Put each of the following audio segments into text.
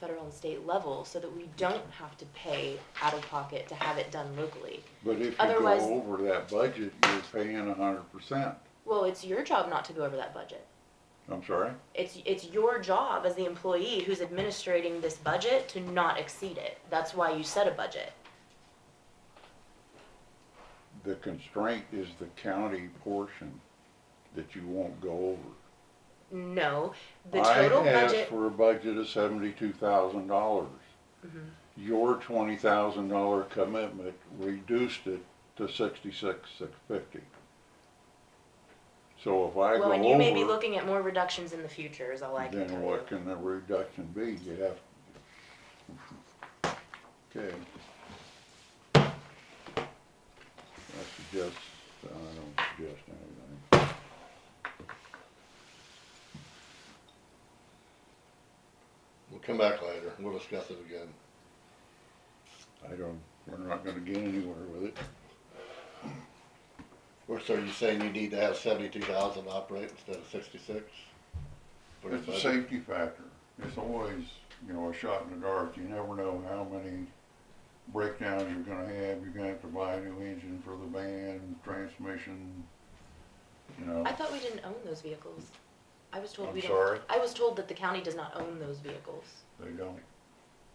federal and state level so that we don't have to pay out of pocket to have it done locally. But if you Otherwise- go over that budget, you're paying a hundred percent. Well, it's your job not to go over that budget. I'm sorry? It's, it's your job as the employee who's administrating this budget to not exceed it. That's why you set a budget. The constraint is the county portion that you won't go over. No, the total I asked budget, for a budget of seventy-two thousand dollars. Mhm. Your twenty thousand dollar commitment reduced it to sixty-six, six fifty. So if I go well, and you may be over, looking at more reductions in the future is all I can tell then you. what can the reduction be? You have. Okay. I suggest, I don't suggest anything. We'll come back later. We'll discuss it again. I don't, we're not gonna get anywhere with it. Or so you're saying you need to have seventy-two thousand operate instead of sixty-six? For your It's a budget? safety factor. It's always, you know, a shot in the dark. You never know how many breakdowns you're gonna have. You're gonna have to buy a new engine for the van, transmission, you know. I thought we didn't own those vehicles. I was told I'm we sorry? didn't, I was told that the county does not own those vehicles. They don't,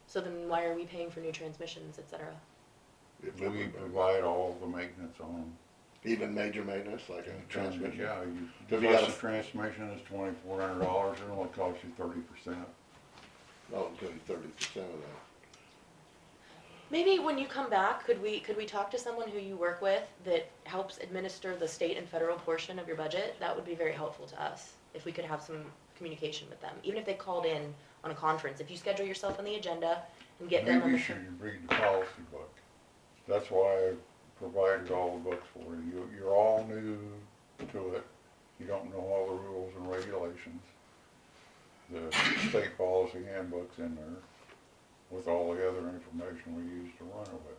So then why are we paying for new transmissions, et cetera? If it we would- provide all the maintenance on. Even major maintenance, like a transmission? Yeah, you, If you got plus a- the transmission is twenty-four hundred dollars. It only costs you thirty percent. Oh, including thirty percent of that. Maybe when you come back, could we, could we talk to someone who you work with that helps administer the state and federal portion of your budget? That would be very helpful to us, if we could have some communication with them, even if they called in on a conference. If you schedule yourself on the agenda and get them on Maybe you the. should read the policy book. That's why I provided all the books for you. You- You're all new to it. You don't know all the rules and regulations. The state policy handbook's in there with all the other information we use to run it with.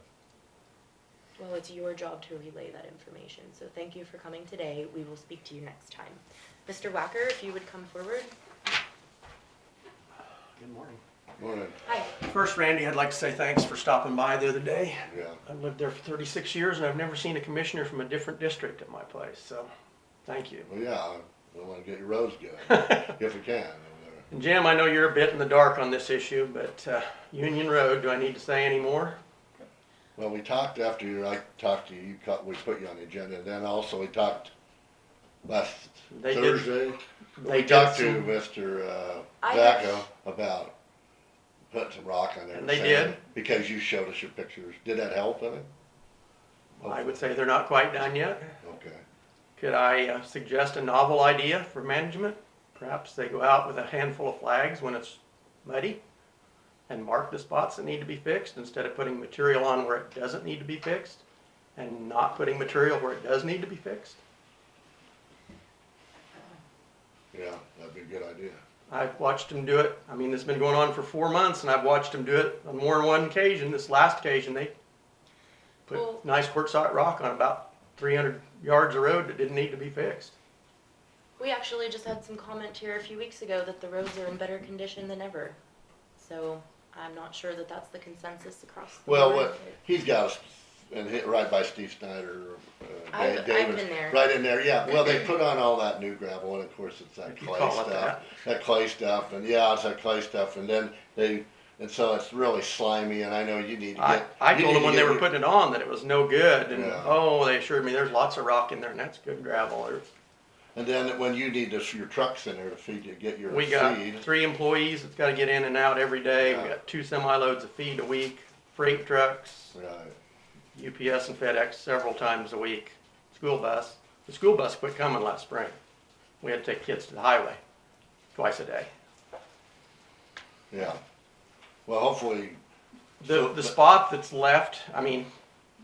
Well, it's your job to relay that information, so thank you for coming today. We will speak to you next time. Mr. Wacker, if you would come forward. Good morning. Morning, Hi. First, Randy, I'd like to say thanks for stopping by the other day. yeah. I've lived there for 36 years and I've never seen a commissioner from a different district at my place, so thank you. Well, yeah, we wanna get your roads going, if we can. over there. And Jim, I know you're a bit in the dark on this issue, but uh, Union Road, do I need to say any more? Well, we talked after you, I talked to you, you cut, we put you on the agenda, and then also we talked last They did- Thursday. They We did talked to some- Mr. uh, I Vacca about putting some rock on there. And they saying- did? Because you showed us your pictures. Did that help any? I would say they're not quite done yet. Okay. Could I uh, suggest a novel idea for management? Perhaps they go out with a handful of flags when it's muddy and mark the spots that need to be fixed instead of putting material on where it doesn't need to be fixed and not putting material where it does need to be fixed. Yeah, that'd be a good idea. I've watched them do it. I mean, this has been going on for four months and I've watched them do it on more than one occasion. This last occasion, they Well- put nice quartzite rock on about 300 yards of road that didn't need to be fixed. We actually just had some comment here a few weeks ago that the roads are in better condition than ever. So I'm not sure that that's the consensus across the Well, board. what, he's got us, and hit right by Steve Snyder, uh, I've- Da- I've Davis. been there. Right in there, yeah. Well, they put on all that new gravel, and of course, it's that If you clay call it stuff. That clay stuff, and yeah, it's that clay stuff, and then they, and so it's really slimy, and I know you need to I, get. I you told need them to when get they were your- putting it on that it was no good, and Yeah. oh, they assured me there's lots of rock in there, and that's good gravel. Or- And then when you need this, your trucks in there to feed, to get your We got feed. three employees that's got to get in and out every day. We Yeah. got two semi loads of feed a week, freight trucks, Right. UPS and FedEx several times a week, school bus. The school bus quit coming last spring. We had to take kids to the highway twice a day. Yeah. Well, hopefully, The, the spot that's left, I mean,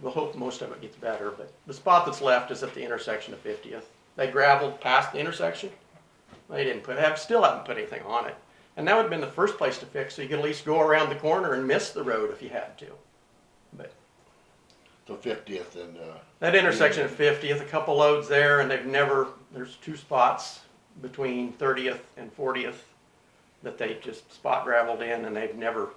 we'll hope most of it gets better, but the spot that's left is at the intersection of 50th. They gravelled past the intersection. They didn't put, have, still haven't put anything on it. And that would have been the first place to fix, so you could at least go around the corner and miss the road if you had to. But the fiftieth and, uh, that intersection of 50th, a couple loads there, and they've never, there's two spots between 30th and 40th that they just spot gravelled in and they've never